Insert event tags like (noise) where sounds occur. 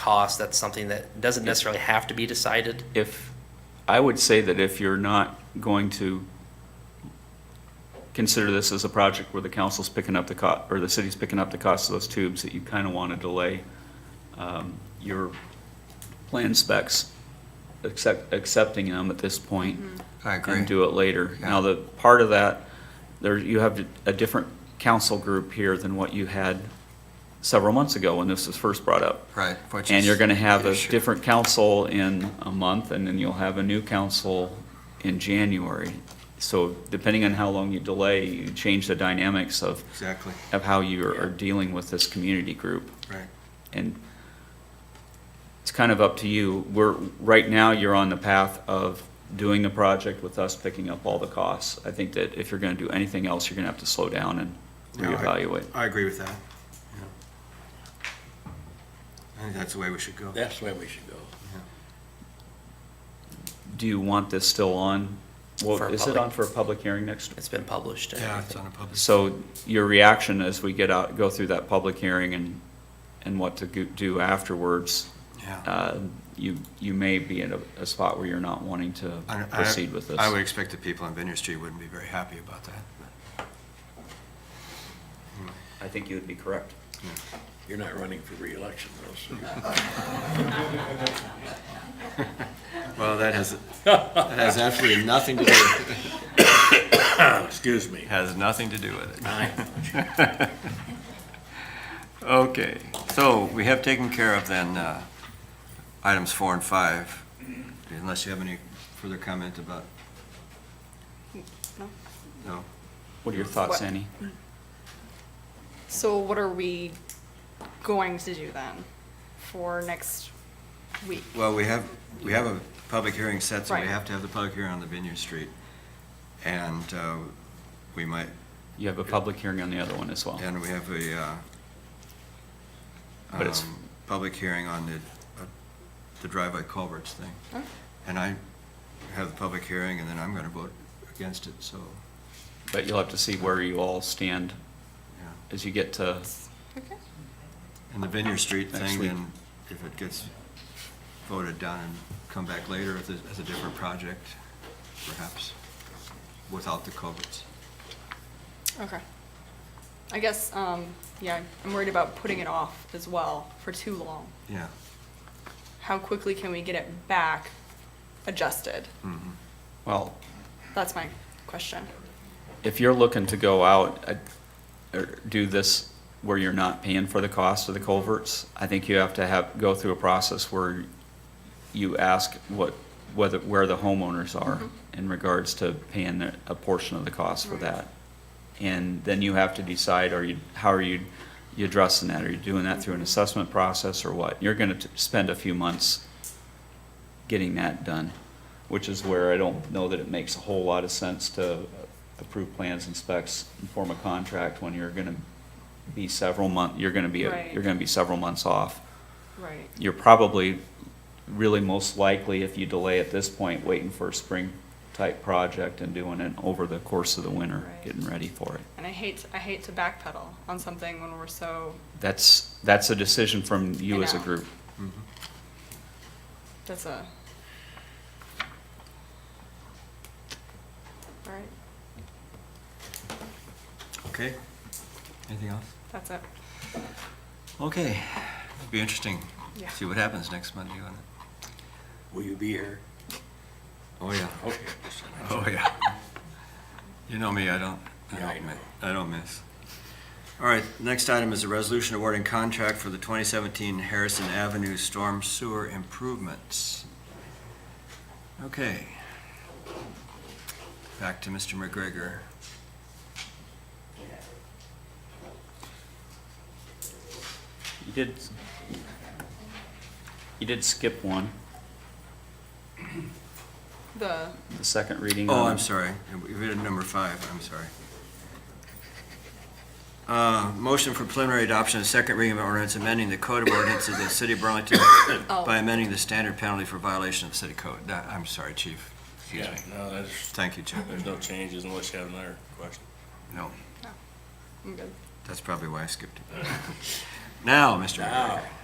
cost, that's something that doesn't necessarily have to be decided. If, I would say that if you're not going to consider this as a project where the council's picking up the co, or the city's picking up the cost of those tubes, that you kind of want to delay um, your plan specs, accept, accepting them at this point. I agree. And do it later. Yeah. Now, the part of that, there, you have a different council group here than what you had several months ago when this was first brought up. Right. which And is you're gonna have the a issue. different council in a month, and then you'll have a new council in January. So depending on how long you delay, you change the dynamics of, Exactly, of how you are dealing with this community group. right. And it's kind of up to you. We're, right now, you're on the path of doing the project with us picking up all the costs. I think that if you're gonna do anything else, you're gonna have to slow down and No, I- reevaluate. I agree with that. yeah. I think that's the way we should go. That's the way we should go. Do you want this still on? Well, For a is it public- on for a public hearing next? It's been published. and Yeah, everything. it's on a public. So your reaction as we get out, go through that public hearing and, and what to go- do afterwards, Yeah. uh, you, you may be in a, a spot where you're not wanting to I- I- proceed with this. I would expect the people on Vineyard Street wouldn't be very happy about that. I think you would be correct. You're not running for reelection though, Hmm. so. Well, that has, that has absolutely nothing to do, Oh, Excuse me. has nothing to do with it. I- (laughs) Okay, so we have taken care of then, uh, items four and five, unless you have any further comment about? No. No? What are your thoughts, What- Annie? So what are we going to do then for next week? Well, we have, we have a public hearing set, so we Right. have to have the public hearing on the Vineyard Street. And uh, we might, You have a public hearing on the other one as well. and we have a uh, But it's- um, public hearing on the, uh, the driveway culverts thing. Oh. And I have the public hearing, and then I'm gonna vote against it, so, But you'll have to see where you all stand yeah. as you get to, Okay. And the Vineyard Street Next thing, week. then, if it gets voted down and come back later as a, as a different project, perhaps, without the culverts. Okay. I guess, um, yeah, I'm worried about putting it off as well for too long. Yeah. How quickly can we get it back adjusted? mhm. well, That's my question. if you're looking to go out, uh, or do this where you're not paying for the cost of the culverts, I think you have to have, go through a process where you ask what, whether, where the homeowners are in regards to paying their- a portion of the cost for Right. that. And then you have to decide, are you, how are you, you addressing that? Are you doing that through an assessment process or what? You're gonna t- spend a few months getting that done, which is where I don't know that it makes a whole lot of sense to approve plans and specs and form a contract when you're gonna be several month, you're gonna be, a- Right. you're gonna be several months off. Right. You're probably, really most likely, if you delay at this point, waiting for a spring-type project and doing it over the course of the winter, Right. getting ready for it. And I hate, I hate to backpedal on something when we're so, That's, that's a decision from you I as a know. group. Mm-hmm. that's a. All right, Okay. Anything else? that's it. Okay. Be interesting. Yeah. See what happens next Monday on it. Will you be here? Oh, yeah. Okay. Oh, yeah. You know me, I don't, I Yeah, I don't, know. mi- I don't miss. All right, next item is a resolution awarding contract for the 2017 Harrison Avenue Storm Sewer Improvements. Okay. Back to Mr. McGregor. You did, you did skip one, The, the second reading. Oh, on I'm it. sorry. We did number five, I'm sorry. Uh, Motion for preliminary adoption of second reading of ordinance amending the code of ordinances of the city of (coughs) Burlington Oh. by amending the standard penalty for violation of the city code. That- I'm sorry, chief. Excuse Yeah, me. no, there's, Thank you, chief. there's no changes unless you have another question. No, I'm good. that's probably why I skipped it. (laughs) Now, Mr. McGregor.